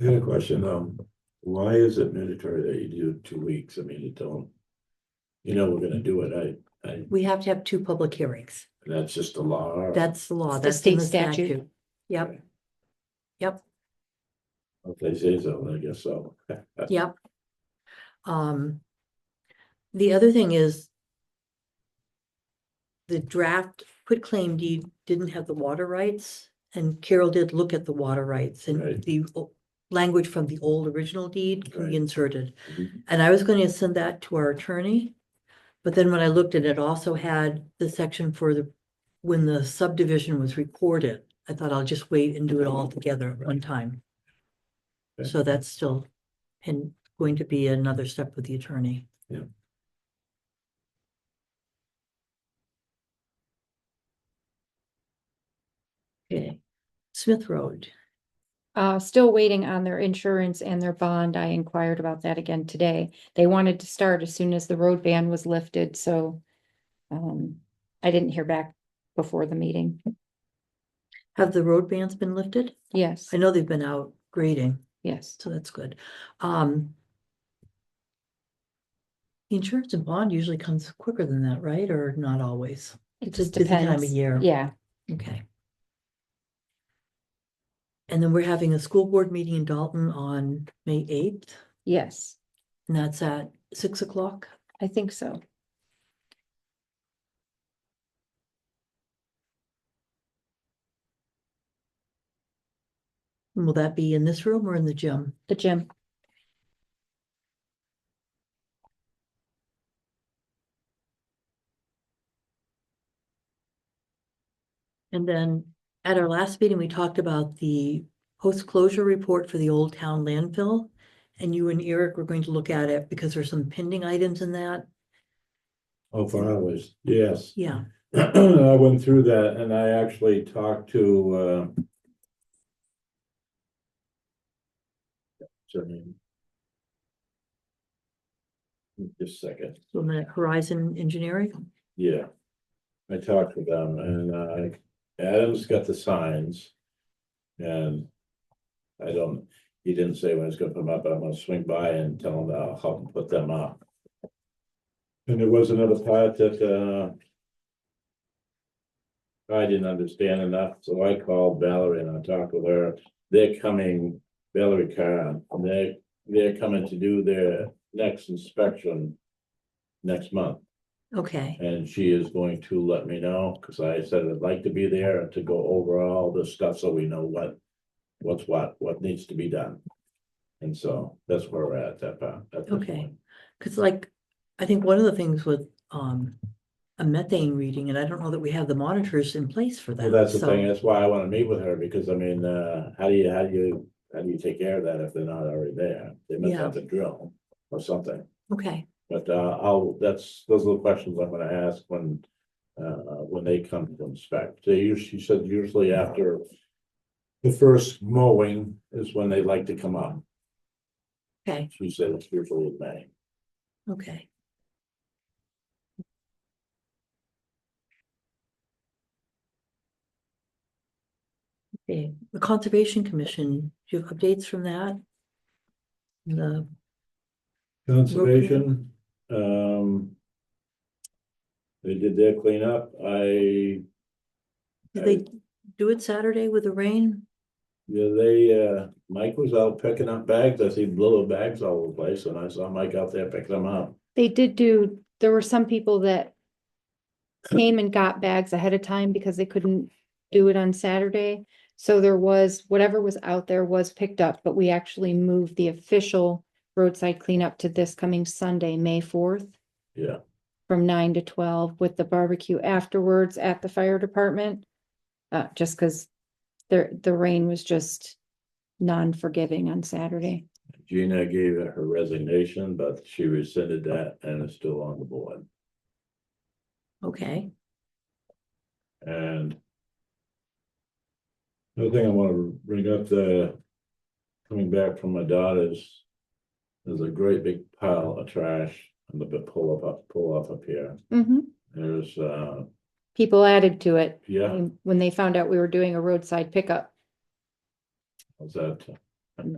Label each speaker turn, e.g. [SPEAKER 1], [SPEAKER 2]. [SPEAKER 1] I had a question, um, why is it mandatory that you do two weeks? I mean, you don't. You know, we're gonna do it, I, I,
[SPEAKER 2] We have to have two public hearings.
[SPEAKER 1] that's just the law.
[SPEAKER 2] That's the law.
[SPEAKER 3] It's the
[SPEAKER 2] That's in
[SPEAKER 3] state
[SPEAKER 2] the
[SPEAKER 3] statute.
[SPEAKER 2] statute. Yep,
[SPEAKER 1] If they say so, then I guess so.
[SPEAKER 2] yep. Um, the other thing is the draft quit claim deed didn't have the water rights and Carol did look at the water rights and
[SPEAKER 1] Right.
[SPEAKER 2] the o- language from the old original deed can
[SPEAKER 1] Right.
[SPEAKER 2] be inserted.
[SPEAKER 1] Mhm.
[SPEAKER 2] And I was going to send that to our attorney. But then when I looked at it, it also had the section for the, when the subdivision was recorded. I thought I'll just wait and do it all together at one time.
[SPEAKER 1] Okay.
[SPEAKER 2] So that's still, and going to be another step with the attorney.
[SPEAKER 1] Yeah.
[SPEAKER 2] Okay, Smith Road,
[SPEAKER 3] Uh, still waiting on their insurance and their bond. I inquired about that again today. They wanted to start as soon as the road ban was lifted, so. Um, I didn't hear back before the meeting.
[SPEAKER 2] have the road bans been lifted?
[SPEAKER 3] Yes,
[SPEAKER 2] I know they've been out grading.
[SPEAKER 3] yes.
[SPEAKER 2] So that's good. Um. Insurance and bond usually comes quicker than that, right? Or not always?
[SPEAKER 3] It
[SPEAKER 2] It's a
[SPEAKER 3] just
[SPEAKER 2] busy time of
[SPEAKER 3] depends.
[SPEAKER 2] year.
[SPEAKER 3] Yeah,
[SPEAKER 2] Okay. And then we're having a school board meeting in Dalton on May eighth,
[SPEAKER 3] yes,
[SPEAKER 2] and that's at six o'clock.
[SPEAKER 3] I think so.
[SPEAKER 2] And Will that be in this room or in the gym?
[SPEAKER 3] The gym.
[SPEAKER 2] And then at our last meeting, we talked about the post-closure report for the Old Town landfill. And you and Eric were going to look at it because there's some pending items in that.
[SPEAKER 1] Oh, for hours, yes.
[SPEAKER 2] Yeah.
[SPEAKER 1] I went through that and I actually talked to, uh. what's her name? Just a second.
[SPEAKER 2] From the Horizon Engineering,
[SPEAKER 1] Yeah. I talked to them and uh Adam's got the signs. And I don't, he didn't say when he's gonna put them up, but I'm gonna swing by and tell him that I'll help him put them up. And there was another part that uh. I didn't understand enough, so I called Valerie and I talked with her. They're coming, Valerie Carr, and they, they're coming to do their next inspection. Next month.
[SPEAKER 2] okay,
[SPEAKER 1] And she is going to let me know, cause I said I'd like to be there to go over all this stuff so we know what. What's what, what needs to be done. And so that's where we're at that part. at this
[SPEAKER 2] Okay.
[SPEAKER 1] point.
[SPEAKER 2] because like, I think one of the things with um. A methane reading, and I don't know that we have the monitors in place for
[SPEAKER 1] Well,
[SPEAKER 2] that.
[SPEAKER 1] that's the
[SPEAKER 2] so-
[SPEAKER 1] thing, that's why I wanna meet with her, because I mean, uh, how do you, how do you, how do you take care of that if they're not already there? They must
[SPEAKER 2] Yeah.
[SPEAKER 1] have to drill or something,
[SPEAKER 2] Okay,
[SPEAKER 1] but uh, I'll, that's, those are the questions I'm gonna ask when. Uh, when they come to inspect, they usually, she said usually after. The first mowing is when they like to come up,
[SPEAKER 2] okay,
[SPEAKER 1] she said it's usually in May.
[SPEAKER 2] okay. Okay, the Conservation Commission, do you have updates from that? The,
[SPEAKER 1] Conservation, um. They did their cleanup, I.
[SPEAKER 2] did they do it Saturday with the rain?
[SPEAKER 1] Yeah, they, uh, Mike was out picking up bags, I see little bags all over the place, and I saw Mike out there picking them up.
[SPEAKER 3] They did do, there were some people that came and got bags ahead of time because they couldn't do it on Saturday. So there was, whatever was out there was picked up, but we actually moved the official roadside cleanup to this coming Sunday, May fourth,
[SPEAKER 1] Yeah,
[SPEAKER 3] from nine to twelve with the barbecue afterwards at the fire department. Uh, just because there, the rain was just non-forgiving on Saturday.
[SPEAKER 1] Gina gave her resignation, but she rescinded that and is still on the board.
[SPEAKER 2] Okay,
[SPEAKER 1] And. Another thing I wanna bring up, the, coming back from my daughter's. There's a great big pile of trash on the big pull up, up, pull up up here.
[SPEAKER 3] Mhm.
[SPEAKER 1] There's, uh,
[SPEAKER 3] People added to it
[SPEAKER 1] yeah,
[SPEAKER 3] when when they found out we were doing a roadside pickup.
[SPEAKER 1] was that uh,